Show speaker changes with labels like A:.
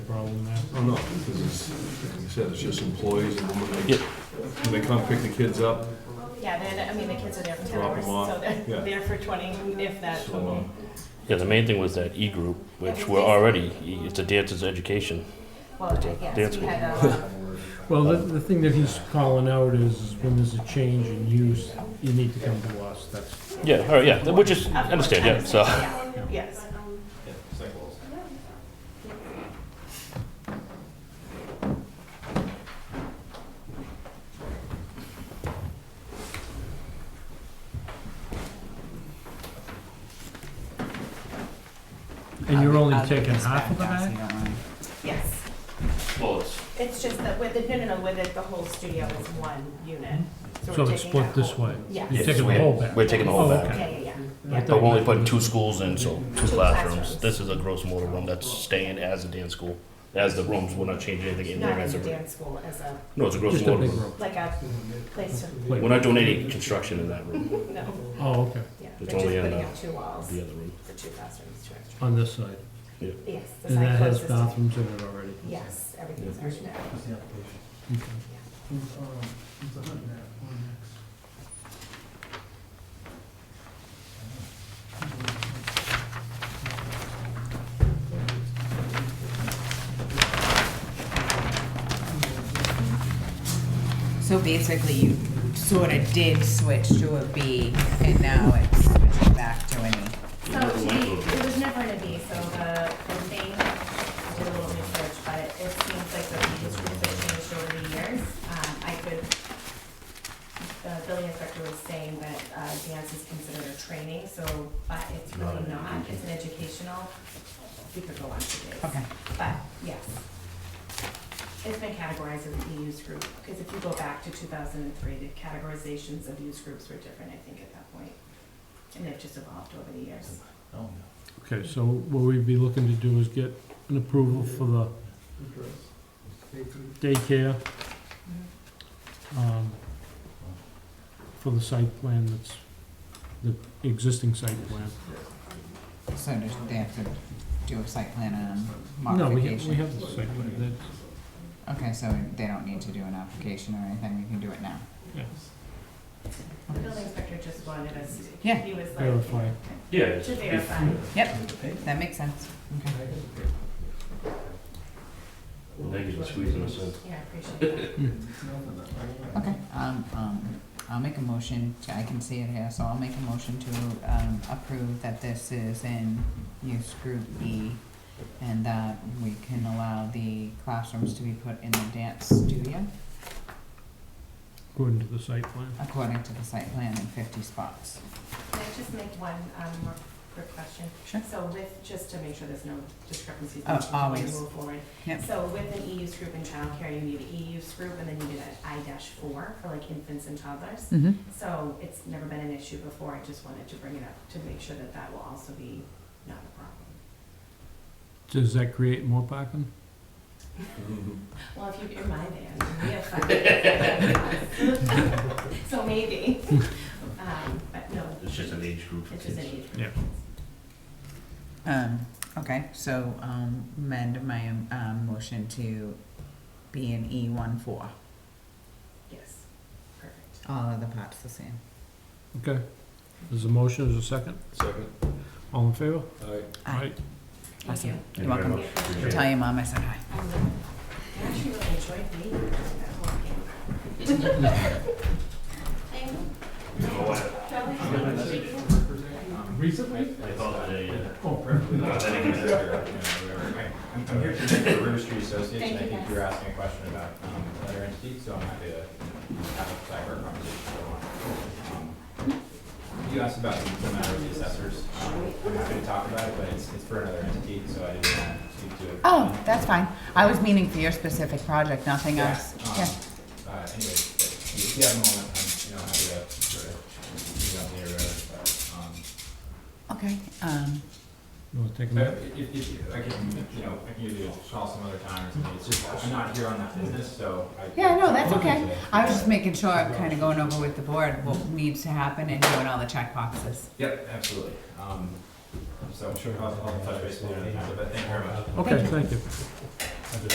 A: problem there?
B: Oh, no, because it's, like you said, it's just employees and when they,
C: Yeah.
B: when they come pick the kids up,
D: Yeah, then, I mean, the kids are there for ten
B: Drop
D: hours,
B: 'em
D: so
B: off, yeah.
D: they're there for twenty, if that.
B: so, uh,
C: Yeah, the main thing was that E group, which we're already, it's a dancer's education.
D: Well, I guess we had a,
A: Well, the, the thing that he's calling out is when there's a change in use, you need to come to us, that's.
C: Yeah, all right, yeah, which is, I understand, yeah, so.
D: uh, Yeah, Yes.
A: And you're only
E: I'll give
A: taking
E: this
A: half of the
E: back,
A: bag?
E: Darcy, don't worry.
D: Yes,
C: Well, it's-
D: it's just that with it, no, no, no, with it, the whole studio is one unit. we're
A: Mm-hmm. So it's
D: taking
A: split
D: that
A: this
D: whole-
A: way?
D: Yeah.
A: You're
C: Yes,
A: taking the
C: we-
A: whole bag?
C: We're taking the whole
A: Oh,
C: back.
D: Yeah, yeah, yeah,
A: I
D: yeah.
A: thought-
C: But we're only putting two schools in, so two classrooms.
D: classrooms.
C: This is a gross motor room that's staying as a dance school. As the rooms, we're not changing anything in there
D: Not
C: as
D: as
C: a
D: a
C: room.
D: dance school, as a,
C: No, it's a gross
A: Just a
C: motor
A: big
C: room.
A: room?
D: like a place to,
C: We're not doing any construction in that room,
D: no,
A: Oh, okay,
D: yeah.
C: It's
D: They're just
C: only in
D: putting
C: the-
D: up two walls
C: the other room.
D: for two classrooms, two extra.
A: on this side.
D: Yes, the
A: And that
D: side
A: has
D: closes. to-
A: bathrooms in it already?
D: Yes, everything's already there.
A: Okay.
E: So basically, you sort of did switch to a B, and now it's switching back to an E.
D: So to be, it was never gonna be, so the, the thing, I did a little research, but it seems like the biggest research change over the years. Um, I could, the building inspector was saying that, uh, dance is considered a training, so, but it's really not, it's an educational, we could go on to this.
E: Okay.
D: But, yes. It's been categorized as a used group, because if you go back to two thousand and three, the categorizations of used groups were different, I think, at that point. And they've just evolved over the years.
A: Okay, so what we'd be looking to do is get an approval for the daycare, um, for the site plan that's, the existing site plan.
E: So does they have to do a site plan and a
A: No, we have, we
E: modification?
A: have the site plan, that,
E: Okay, so they don't need to do an application or anything, we can do it now.
D: The building inspector just wanted us to.
E: Yeah.
D: He was like.
A: Verify.
C: Yeah.
D: To verify.
E: Yep, that makes sense. Okay.
C: Thank you for squeezing us in.
D: Yeah, I appreciate that.
E: Okay, um, um, I'll make a motion, to- I can see it here, so I'll make a motion to, um, approve that this is in use group E and that we can allow the classrooms to be put in the dance studio
A: according to the site plan.
E: according to the site plan in fifty spots.
D: Can I just make one, um, more quick question?
E: Sure.
D: So with, just to make sure there's no discrepancies.
E: Oh,
D: before we
E: always.
D: Move forward.
E: Yep.
D: So with an E use group in childcare, you need an E use group and then you need an I dash four for like infants and toddlers.
E: Mm-hmm.
D: So it's never been an issue before. I just wanted to bring it up to make sure that that will also be not a problem.
A: Does that create more parking?
B: Mm-hmm.
D: Well, if you, you're my man, we have fun. So maybe, um, but no,
C: It's just an age group for
D: it's just an
C: kids.
D: age.
A: Yeah.
E: Um, okay, so, um, amend my, um, motion to be in E one four,
D: Yes, perfect.
E: all of the parts the same.
A: Okay, there's a motion, there's a second,
B: second,
A: all in favor?
B: all right.
E: Aye.
A: Right.
D: Thank you.
C: Thank
E: You're
C: you very
E: welcome.
C: much. Appreciate it.
E: Tell your mom I said hi.
D: I really- I actually really enjoyed meeting you. That whole game.
C: I thought that, uh,
F: I'm here to make the River Street Association,
D: Thank
F: I
D: you,
F: think
D: guys.
F: you were asking a question about um, other entities, so I'm happy to have a sidebar conversation. Um, You asked about the the matter of the assessors, Um, I'm happy to talk about it, but it's, it's for another entity, so I didn't want to speak to it.
E: Oh, that's fine. I was meaning for your specific project, nothing
F: Yeah,
E: else.
F: um,
E: Yeah.
F: Uh, anyway, if you have a moment, I'm, you know, happy to sort of, you know, hear, uh, um,
E: Okay, um,
A: You wanna take a
F: But
A: minute?
F: if, if, if, I can, you know, I can give you a call some other time or something, it's just, I'm not here on that business, so I.
E: yeah, no, that's okay. I was just making sure, I'm kind of going over with the board what needs to happen and doing all the check boxes.
F: Yep, absolutely. Um, so I'm sure I'll, I'll touch base with you another time, but thank you very much.
A: Okay, thank you.